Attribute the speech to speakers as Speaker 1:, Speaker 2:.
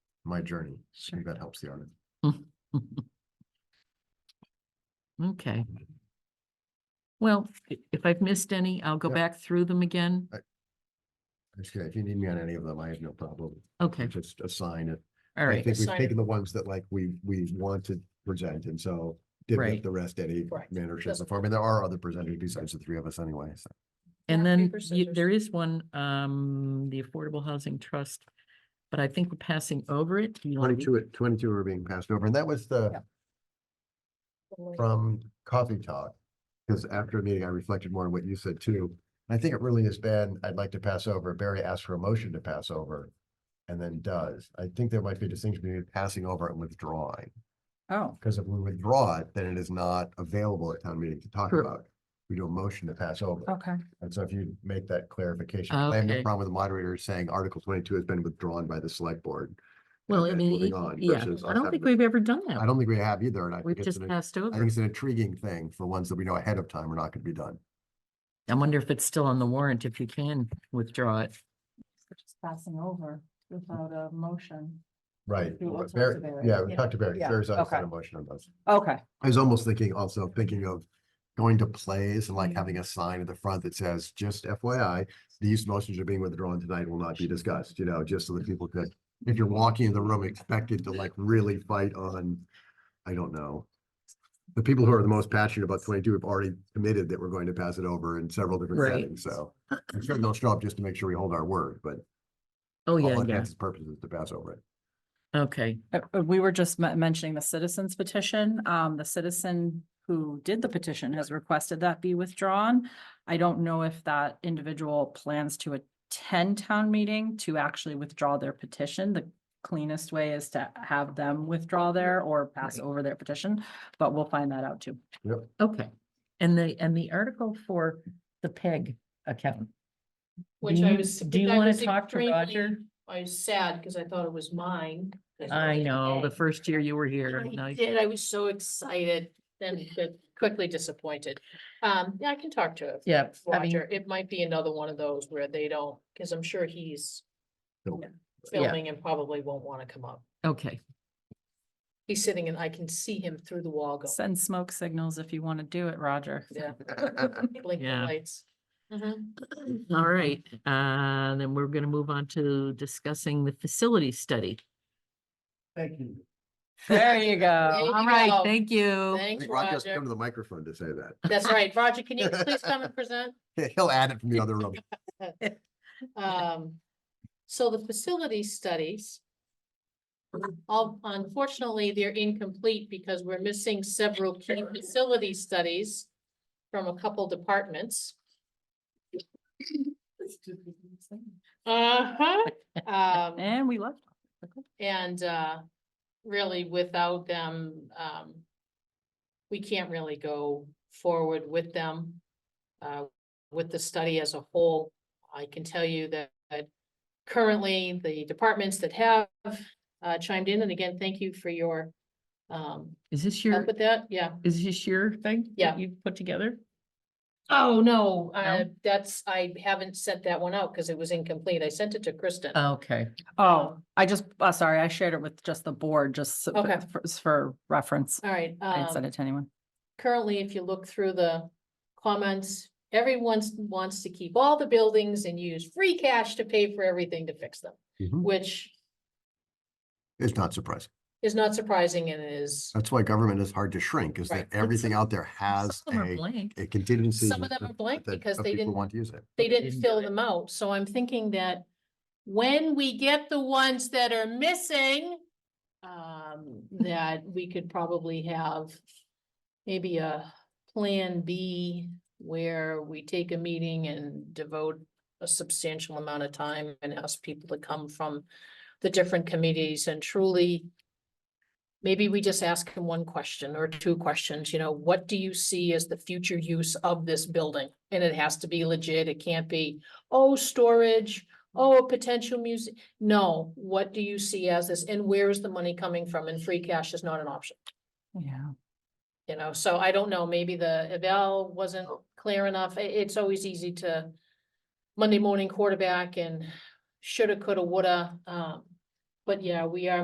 Speaker 1: my journey. I
Speaker 2: Sure.
Speaker 1: think that helps the artist.
Speaker 2: Okay. Well, i- if I've missed any, I'll go
Speaker 1: Yep.
Speaker 2: back through them again.
Speaker 1: Okay, if you need me on any of them, I have no problem.
Speaker 2: Okay,
Speaker 1: Just assign it. I
Speaker 2: all right.
Speaker 1: think we've
Speaker 3: assign it.
Speaker 1: taken the ones that like we, we want to present and so didn't
Speaker 2: Right.
Speaker 1: give the rest any
Speaker 3: Correct.
Speaker 1: manner, shape or
Speaker 3: Doesn't-
Speaker 1: form. And there are other presenters besides the three of us anyway. So
Speaker 2: And
Speaker 3: rock,
Speaker 2: then
Speaker 3: paper,
Speaker 2: you- there is one, um, the Affordable Housing Trust, but I think we're passing over it. Do you wanna read-
Speaker 1: Twenty-two, at- twenty-two are being passed over and that was the,
Speaker 3: Yep.
Speaker 1: from Coffee Talk. Because after a meeting, I reflected more on what you said too. I think it really is bad. I'd like to pass over. Barry asked for a motion to pass over. And then does. I think there might be a distinction between passing over and withdrawing.
Speaker 2: Oh,
Speaker 1: Because if we withdraw it, then it is not available at town meeting to talk
Speaker 2: True. Oh.
Speaker 1: about. We do a motion to pass over.
Speaker 3: Okay,
Speaker 1: And so if you make that clarification, 'cause I have no
Speaker 2: Okay.
Speaker 1: problem with the moderator saying Article twenty-two has been withdrawn by the select board.
Speaker 2: well, I
Speaker 1: and
Speaker 2: mean,
Speaker 1: moving
Speaker 2: e-
Speaker 1: on
Speaker 2: yeah,
Speaker 1: versus
Speaker 2: I
Speaker 1: us
Speaker 2: don't
Speaker 1: having
Speaker 2: think
Speaker 1: to-
Speaker 2: we've ever done that.
Speaker 1: I don't think we have either, and I
Speaker 2: We've
Speaker 1: think it's,
Speaker 2: just
Speaker 1: an- I
Speaker 2: passed over.
Speaker 1: think it's an intriguing thing for ones that we know ahead of time are not gonna be done.
Speaker 2: I wonder if it's still on the warrant, if you can withdraw it.
Speaker 3: so just passing over without a motion.
Speaker 1: Right.
Speaker 3: Do all sorts
Speaker 1: Barry-
Speaker 3: of areas.
Speaker 1: Yeah, we
Speaker 3: Yeah.
Speaker 1: talked to Barry.
Speaker 3: Yeah.
Speaker 1: Barry's always had
Speaker 3: Okay.
Speaker 1: a motion on those.
Speaker 3: Okay,
Speaker 1: I was almost thinking, also thinking of going to plays and
Speaker 2: Mm-hmm.
Speaker 1: like
Speaker 3: Mm.
Speaker 1: having a sign at the front that says, just FYI, these motions are being withdrawn tonight, will not be discussed, you know, just so that people could, if you're walking in the room expected to like really fight on, I don't know. The people who are the most passionate about twenty-two have already committed that we're going to pass it over in several different
Speaker 2: Right.
Speaker 1: settings, so. I'm sure they'll show up just to make sure we hold our word, but
Speaker 2: Oh,
Speaker 1: all
Speaker 2: yeah, yeah.
Speaker 1: intents and purposes to pass over it.
Speaker 2: Okay,
Speaker 3: Uh, uh, we were just men- mentioning the citizens petition. Um, the citizen who did the petition has requested that be withdrawn. I don't know if that individual plans to attend town meeting to actually withdraw their petition. The cleanest way is to have them withdraw their or pass
Speaker 2: Right.
Speaker 3: over their petition, but we'll find that out too.
Speaker 2: okay. And the, and the article for the PEG account.
Speaker 4: Which
Speaker 2: Do
Speaker 4: I
Speaker 2: you-
Speaker 4: was.
Speaker 2: do you
Speaker 4: I
Speaker 2: wanna
Speaker 4: was
Speaker 2: talk to
Speaker 4: extremely-
Speaker 2: Roger?
Speaker 4: I was sad because I thought it was mine. 'cause it
Speaker 2: I
Speaker 4: was
Speaker 2: know, the
Speaker 4: today.
Speaker 2: first year you were here. now
Speaker 4: I
Speaker 2: you-
Speaker 4: did. I was so excited, then got quickly disappointed. Um, yeah, I can talk to it.
Speaker 2: Yeah, I mean-
Speaker 4: Roger, it might be another one of those where they don't, because I'm sure he's
Speaker 1: Nope.
Speaker 2: Yeah.
Speaker 4: filming and probably won't want to come up.
Speaker 2: Okay,
Speaker 4: He's sitting and I can see him through the wall go,
Speaker 3: Send smoke signals if you want to do it, Roger.
Speaker 4: yeah, blinking
Speaker 2: Yeah.
Speaker 4: lights. Mhm.
Speaker 2: all right. Uh, then we're gonna move on to discussing the facility study.
Speaker 1: Thank you.
Speaker 3: There you
Speaker 4: There
Speaker 3: go.
Speaker 4: you
Speaker 2: All right,
Speaker 4: go.
Speaker 2: thank you.
Speaker 1: I
Speaker 4: Thanks,
Speaker 1: think Roger's come
Speaker 4: Roger.
Speaker 1: to the microphone to say that.
Speaker 4: That's right. Roger, can you please come and present?
Speaker 1: He'll add it from the other room.
Speaker 4: Um, so the facility studies. All, unfortunately, they're incomplete because we're missing several key facility studies from a couple departments. Uh-huh, um.
Speaker 3: And we left.
Speaker 4: And uh, really without them, um. We can't really go forward with them. Uh, with the study as a whole, I can tell you that. that Currently, the departments that have uh chimed in, and again, thank you for your. Um,
Speaker 2: Is this your,
Speaker 4: help with that, yeah.
Speaker 2: is this your thing? that
Speaker 4: Yeah.
Speaker 2: You've put together?
Speaker 4: Oh, no, uh, that's, I haven't sent that one out because it was incomplete. I sent it to Kristen.
Speaker 3: Uh,
Speaker 2: Okay,
Speaker 3: Oh, I just, uh, sorry, I shared it with just the board, just so-
Speaker 4: Okay.
Speaker 3: for- for reference.
Speaker 4: All right.
Speaker 3: I didn't send
Speaker 4: um,
Speaker 3: it to anyone.
Speaker 4: currently, if you look through the comments, everyone s- wants to keep all the buildings and use free cash to pay for everything to fix them,
Speaker 1: Mhm.
Speaker 4: which
Speaker 1: It's not surprising.
Speaker 4: is not surprising and is,
Speaker 1: That's why government is hard to shrink, is
Speaker 4: Right.
Speaker 1: that everything out there has
Speaker 2: some are
Speaker 1: a,
Speaker 2: blank.
Speaker 1: a contingency.
Speaker 4: Some of them are blank
Speaker 1: that-
Speaker 4: because
Speaker 1: of
Speaker 4: they
Speaker 1: people
Speaker 4: didn't-
Speaker 1: Want to use it.
Speaker 4: they
Speaker 2: Didn't
Speaker 4: didn't
Speaker 2: do
Speaker 4: fill
Speaker 2: it.
Speaker 4: them out. So I'm thinking that when we get the ones that are missing, um, that we could probably have maybe a plan B where we take a meeting and devote a substantial amount of time and ask people to come from the different committees and truly maybe we just ask them one question or two questions, you know, what do you see as the future use of this building? And it has to be legit. It can't be, oh, storage, oh, a potential music. No, what do you see as this and where is the money coming from? And free cash is not an option.
Speaker 3: Yeah.
Speaker 4: You know, so I don't know, maybe the eval wasn't clear enough. I- it's always easy to Monday morning quarterback and shoulda, coulda, woulda, um. But yeah, we are